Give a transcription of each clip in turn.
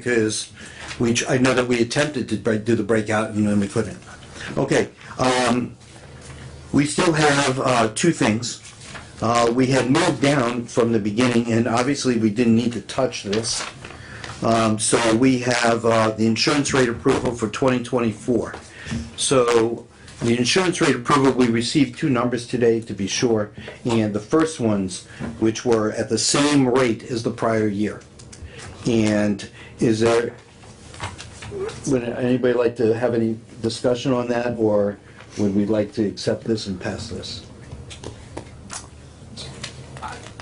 because we, tr- I know that we attempted to break- do the breakout and then we couldn't. Okay, um, we still have, uh, two things. Uh, we had moved down from the beginning and obviously we didn't need to touch this. Um, so we have, uh, the insurance rate approval for twenty twenty-four. So the insurance rate approval, we received two numbers today to be sure. And the first ones, which were at the same rate as the prior year. And is there, would anybody like to have any discussion on that, or would we like to accept this and pass this?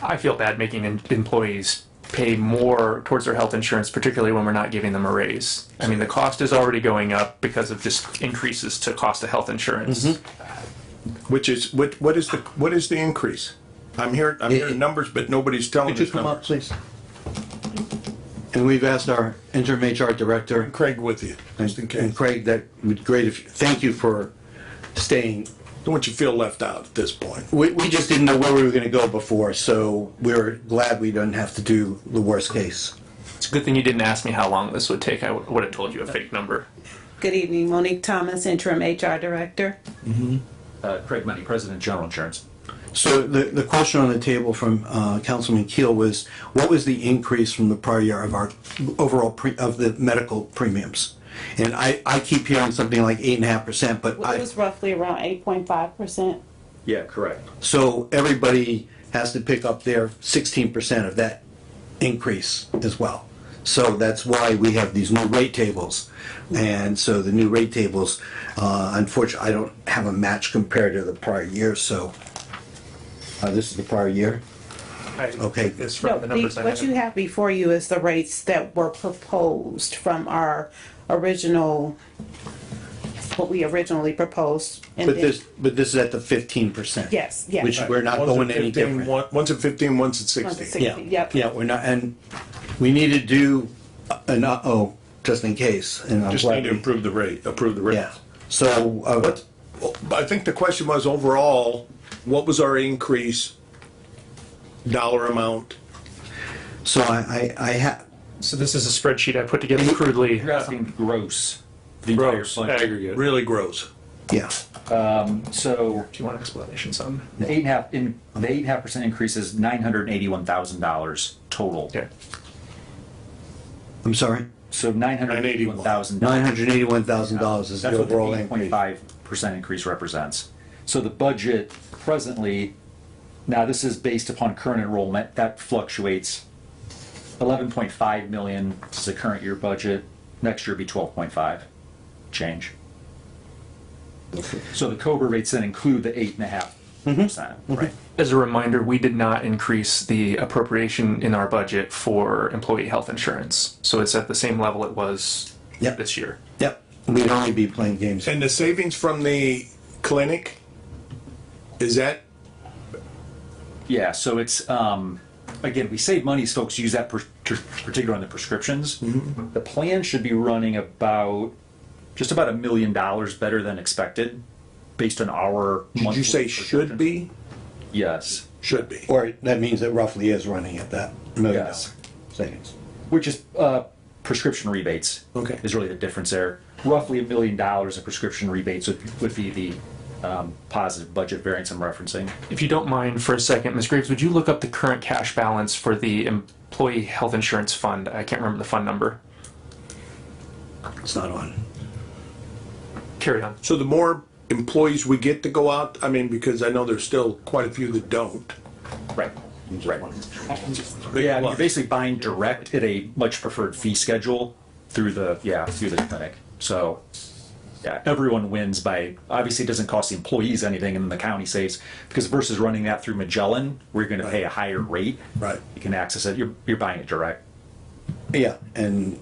I feel bad making em- employees pay more towards their health insurance, particularly when we're not giving them a raise. I mean, the cost is already going up because of just increases to cost of health insurance. Mm-hmm. Which is, what, what is the, what is the increase? I'm hearing, I'm hearing numbers, but nobody's telling Could you us come up, numbers. please? And we've asked our interim HR director Craig with you, just in and case. and Craig, that would great if, thank you for staying. Don't want you to feel left out at this point. We, we just didn't know where we were gonna go before, so we're glad we don't have to do the worst case. It's a good thing you didn't ask me how long this would take. I would have told you a fake number. Good evening, Monique Thomas, interim HR director. Uh, Craig Money, President, General Insurance. So the, the question on the table from uh, Councilman Keel was, what was the increase from the prior year of our overall, pre- of the medical premiums? And I, I keep hearing something like eight and a half percent, but It I, was roughly around 8.5%. Yeah, correct. so everybody has to pick up their sixteen percent of that increase as well. So that's why we have these new rate tables. And so the new rate tables, uh, unfortunately, I don't have a match compared to the prior year, so uh, this is the prior year. Okay. It's from No, the the- numbers I What you have. have before you is the rates that were proposed from our original, what we originally proposed. and But then- this, but this is at the fifteen percent. Yes, yes. Which we're not One's at going any 15, different. one- One's at fifteen, one's at One's at sixteen. Yeah, Yep. yeah, we're not, and we need to do an uh-oh, just in case, and I'm Just need glad. to we- improve the rate, approve the rate. Yeah, so, uh, What, I think the question was overall, what was our increase? Dollar amount? so I, I, I have, So this is a spreadsheet I put together crudely. You're asking gross, the entire Gross, fund aggregate. Re- Really gross. yeah, So If you want explanations on, the eight and a half, in, the eight and a half percent increase is nine hundred and eighty-one thousand dollars total. okay. I'm sorry, So nine hundred and eighty-one thousand. nine hundred eighty-one thousand dollars is the That's what the overall eight point increase. five percent increase represents. So the budget presently, now this is based upon current enrollment, that fluctuates. Eleven point five million is the current year budget, next year will be twelve point five change. So the COBRA rates then include the eight and a half Mm-hmm. percent, right? As a reminder, we did not increase the appropriation in our budget for employee health insurance. So it's at the same level it was Yep. this year. Yep, we'd only be playing games. And the savings from the clinic? Is that, Yeah, so it's, um, again, we save money, folks use that per- ter- particular on the prescriptions. Mm-hmm. The plan should be running about, just about a million dollars better than expected, based on our. did monthly you say should projection. be? Yes, Should be. Or that means it roughly is running at that million dollar Yes. savings. which is, uh, prescription rebates. Okay. Is really the difference there. Roughly a million dollars of prescription rebates would, would be the, um, positive budget variance I'm referencing. If you don't mind for a second, Ms. Graves, would you look up the current cash balance for the employee health insurance fund? I can't remember the fund number. It's not on. Carry on. So the more employees we get to go out, I mean, because I know there's still quite a few that don't. Right, right. Big Yeah, you're plus. basically buying direct at a much preferred fee schedule through the, yeah, through the clinic. So, yeah, everyone wins by, obviously it doesn't cost the employees anything and then the county saves. Because versus running that through Magellan, we're gonna pay a higher rate. Right. You can access it, you're, you're buying it direct, Yeah, and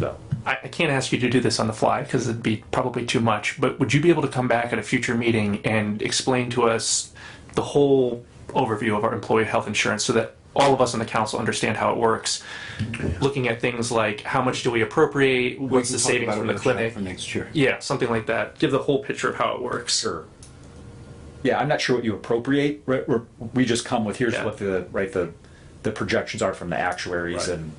so. I, I can't ask you to do this on the fly because it'd be probably too much, but would you be able to come back at a future meeting and explain to us the whole overview of our employee health insurance so that all of us on the council understand how it works? Looking at things like how much do we appropriate, what's the savings from the clinic? next year. Yeah, something like that. Give the whole picture of how it works. Sure. Yeah, I'm not sure what you appropriate, right, we're, we just come with, here's Yeah. what the, right, the, the projections are from the actuaries and